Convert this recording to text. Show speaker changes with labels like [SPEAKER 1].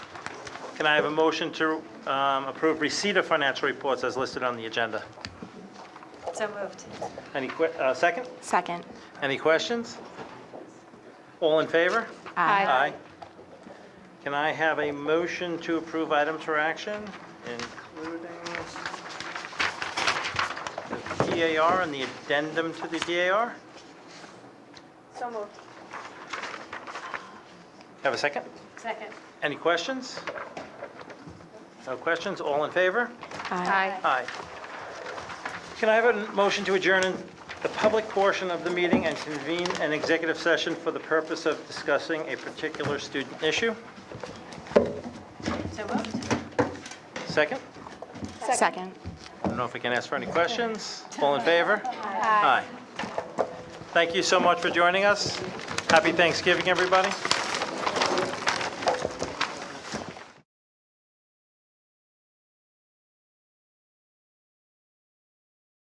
[SPEAKER 1] Can I have a motion to um, approve receipt of financial reports as listed on the agenda?
[SPEAKER 2] So moved.
[SPEAKER 1] Any, que- uh, second?
[SPEAKER 3] Second.
[SPEAKER 1] Any questions? All in favor?
[SPEAKER 3] Aye.
[SPEAKER 1] Can I have a motion to approve items for action, including the DAR and the addendum to the DAR?
[SPEAKER 2] So moved.
[SPEAKER 1] Have a second?
[SPEAKER 2] Second.
[SPEAKER 1] Any questions? No questions? All in favor?
[SPEAKER 2] Aye.
[SPEAKER 1] Aye. Can I have a motion to adjourn in the public portion of the meeting and convene an executive session for the purpose of discussing a particular student issue?
[SPEAKER 2] So moved.
[SPEAKER 1] Second?
[SPEAKER 3] Second.
[SPEAKER 1] I don't know if we can ask for any questions. All in favor? Aye. Thank you so much for joining us. Happy Thanksgiving, everybody.